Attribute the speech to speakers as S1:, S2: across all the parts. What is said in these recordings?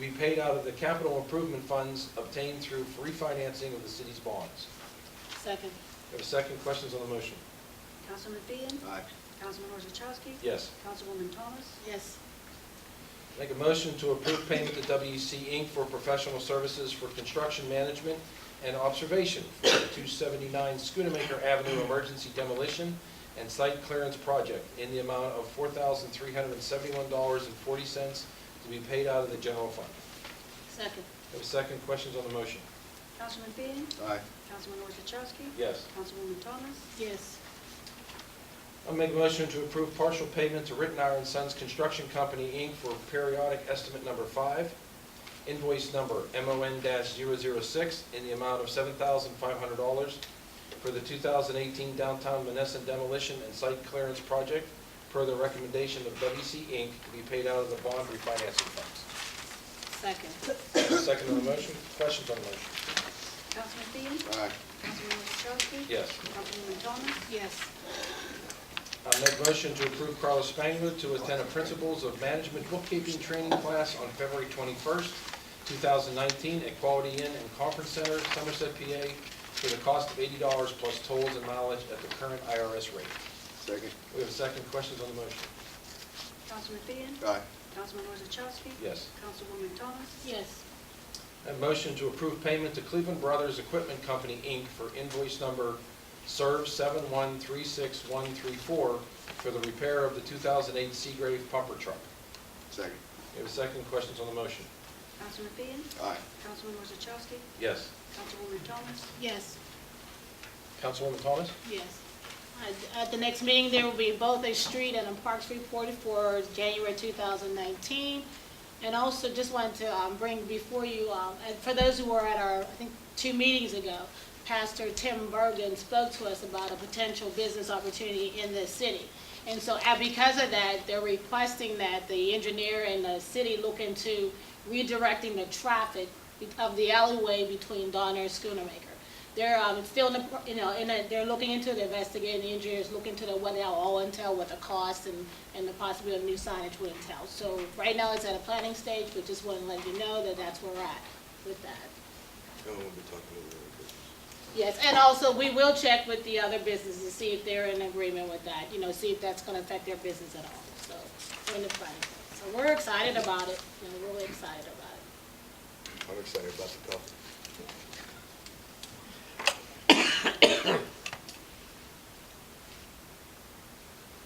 S1: be paid out of the capital improvement funds obtained through free financing of the city's bonds.
S2: Second.
S1: We have a second, questions on the motion?
S3: Councilman Fian,
S4: Aye.
S3: Councilman Orzachowski.
S1: Yes.
S3: Councilwoman Thomas.
S2: Yes.
S1: Make a motion to approve payment to WEC Inc. for professional services for construction management and observation for the 279 Schoonamaker Avenue Emergency Demolition and Site Clearance Project in the amount of $4,371.40 to be paid out of the general fund.
S2: Second.
S1: We have a second, questions on the motion?
S3: Councilman Fian,
S4: Aye.
S3: Councilman Orzachowski.
S1: Yes.
S3: Councilwoman Thomas.
S2: Yes.
S1: I'll make a motion to approve partial payment to Rittenhour and Sons Construction Company, Inc. for periodic estimate number five, invoice number MON-006, in the amount of $7,500 for the 2018 downtown Menneson demolition and site clearance project, per the recommendation of WC Inc., to be paid out of the bond refinancing funds.
S2: Second.
S1: Second on the motion, questions on the motion?
S3: Councilman Fian,
S4: Aye.
S3: Councilman Orzachowski.
S1: Yes.
S3: Councilwoman Thomas.
S2: Yes.
S1: I'll make a motion to approve Carlos Spangler to attend a Principles of Management Bookkeeping Training Class on February 21st, 2019, at Quality Inn and Conference Center, Somerset, PA, for the cost of $80 plus tolls and mileage at the current IRS rate.
S4: Second.
S1: We have a second, questions on the motion?
S3: Councilman Fian,
S4: Aye.
S3: Councilman Orzachowski.
S1: Yes.
S3: Councilwoman Thomas.
S2: Yes.
S1: A motion to approve payment to Cleveland Brothers Equipment Company, Inc. for invoice number SERV 7136134 for the repair of the 2008 Seagrave pumper truck.
S4: Second.
S1: We have a second, questions on the motion?
S3: Councilman Fian,
S4: Aye.
S3: Councilman Orzachowski.
S1: Yes.
S3: Councilwoman Thomas.
S2: Yes.
S1: Councilwoman Thomas?
S2: Yes. At- At the next meeting, there will be both a street and a parks report for January 2019. And also, just wanted to um, bring before you, um, and for those who were at our, I think, two meetings ago, Pastor Tim Bergen spoke to us about a potential business opportunity in this city. And so, and because of that, they're requesting that the engineer and the city look into redirecting the traffic of the alleyway between Donner and Schoonermaker. They're um, still, in the pro- you know, in a, they're looking into the investigating the engineers, looking into the what it all entail, what the cost and, and the possibility of new signage would entail. So right now it's at a planning stage, but just want to let you know that that's where we're at with that.
S4: No, we'll be talking over there.
S2: Yes, and also we will check with the other businesses to see if they're in agreement with that, you know, see if that's going to affect their business at all. So we're in the planning phase. So we're excited about it, you know, really excited about it.
S4: I'm excited about the coffee.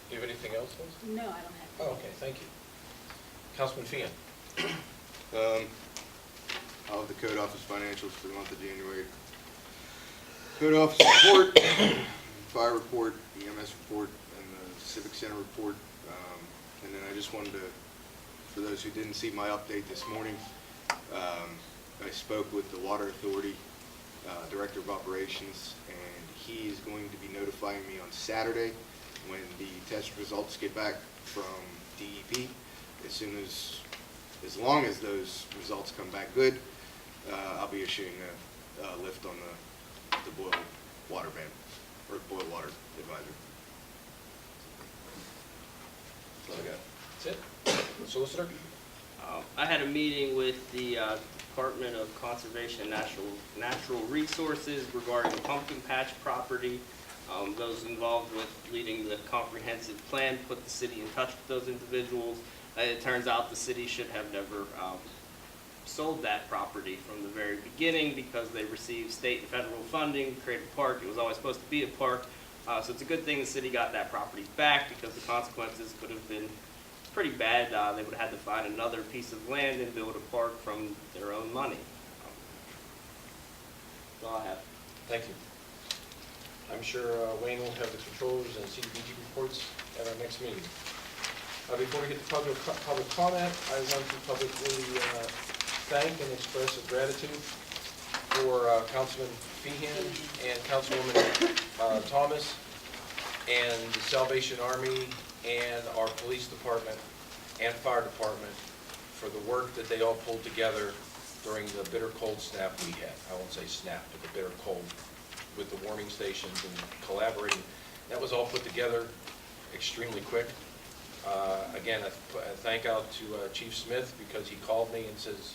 S1: Do you have anything else, Liz?
S2: No, I don't have.
S1: Oh, okay, thank you. Councilman Fian?
S4: Um, I'll have the code office financials for the month of January. Code office report, fire report, EMS report, and the civic center report. Um, And then I just wanted to, for those who didn't see my update this morning, um, I spoke with the water authority, uh, director of operations, and he is going to be notifying me on Saturday when the test results get back from DEP. As soon as as long as those results come back good, uh, I'll be issuing a, a lift on the, the boil water ban, or boil water advisory. That's all I got.
S1: That's it? Solicitor?
S5: Um, I had a meeting with the uh, Department of Conservation and Natural, Natural Resources regarding the pumpkin patch property. Um, Those involved with leading the comprehensive plan put the city in touch with those individuals. Uh, It turns out the city should have never um, sold that property from the very beginning because they received state and federal funding, to create a park, it was always supposed to be a park. Uh, So it's a good thing the city got that property back because the consequences could have been pretty bad. Uh, they would have had to find another piece of land and build a park from their own money. That's all I have.
S1: Thank you. I'm sure uh, Wayne will have the controllers and CDBG reports at our next meeting. Uh, Before we get to public, public comment, I want to publicly uh, thank and express a gratitude for uh, Councilman Feehan and Councilwoman uh, Thomas and the Salvation Army and our police department and fire department for the work that they all pulled together during the bitter cold snap we had. I won't say snap, but the bitter cold with the warming stations and collaborating. That was all put together extremely quick. Uh, Again, a a thank out to uh, Chief Smith because he called me and says,